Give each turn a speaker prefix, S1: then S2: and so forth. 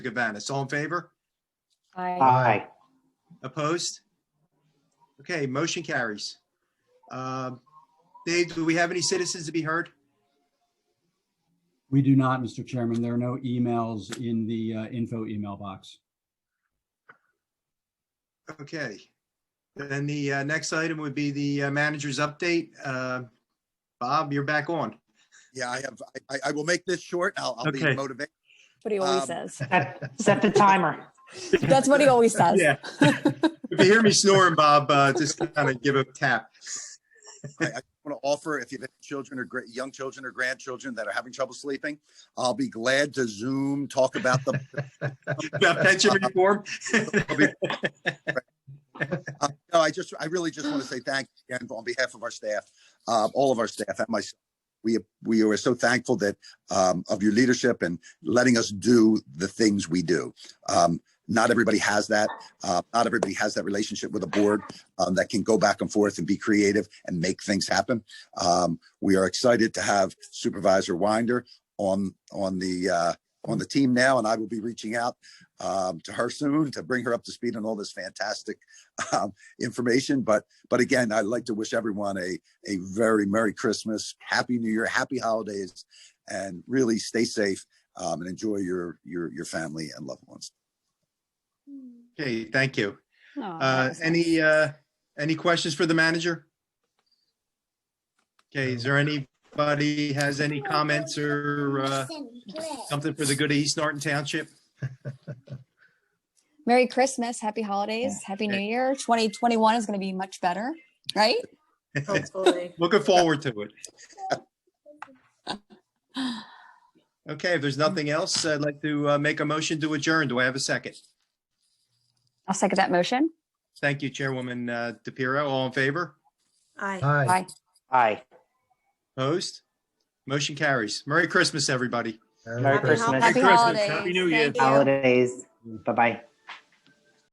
S1: Gavanis. All in favor?
S2: Aye.
S3: Aye.
S1: Opposed? Okay, motion carries. Um, Dave, do we have any citizens to be heard?
S4: We do not, Mr. Chairman. There are no emails in the uh, info email box.
S1: Okay. Then the uh, next item would be the uh, manager's update. Uh, Bob, you're back on.
S5: Yeah, I have, I, I will make this short. I'll, I'll be
S1: Okay.
S5: motivated.
S2: What he always
S5: Um,
S2: says.
S3: Set set the timer.
S2: That's what he always says.
S1: Yeah. If you hear me snoring, Bob, uh, just kind of give a tap.
S5: I want to offer, if you have children or gra- young children or grandchildren that are having trouble sleeping, I'll be glad to Zoom, talk about the,
S1: About pension reform?
S5: no, I just, I really just want to say thank you again on behalf of our staff, uh, all of our staff and myself. We, we are so thankful that, um, of your leadership and letting us do the things we do. Um, not everybody has that. Uh, not everybody has that relationship with a board, um, that can go back and forth and be creative and make things happen. Um, we are excited to have Supervisor Winder on, on the, uh, on the team now, and I will be reaching out, um, to her soon to bring her up to speed on all this fantastic, um, information. But but again, I'd like to wish everyone a a very Merry Christmas, Happy New Year, Happy Holidays, and really stay safe um, and enjoy your your your family and loved ones.
S1: Okay, thank you.
S2: Aw, that
S1: Uh,
S2: was nice.
S1: Any, uh, any questions for the manager? Okay, is there anybody has any comments or uh, something for the good of East Norton Township?
S2: Merry Christmas, happy holidays, happy new
S1: Okay.
S2: year. 2021 is going to be much better, right?
S6: Hopefully.
S1: Looking forward to it. Okay, if there's nothing else, I'd like to uh, make a motion to adjourn. Do I have a second?
S2: I'll second that motion.
S1: Thank you, Chairwoman uh, DePiero. All in favor?
S6: Aye.
S3: Aye.
S2: Aye.
S3: Aye.
S1: Opposed? Motion carries. Merry Christmas, everybody.
S3: Merry
S6: Happy hol-
S3: Christmas,
S2: Happy
S6: Christmas,
S2: holidays.
S7: Happy New Year.
S2: Thank you.
S3: holidays. Bye-bye.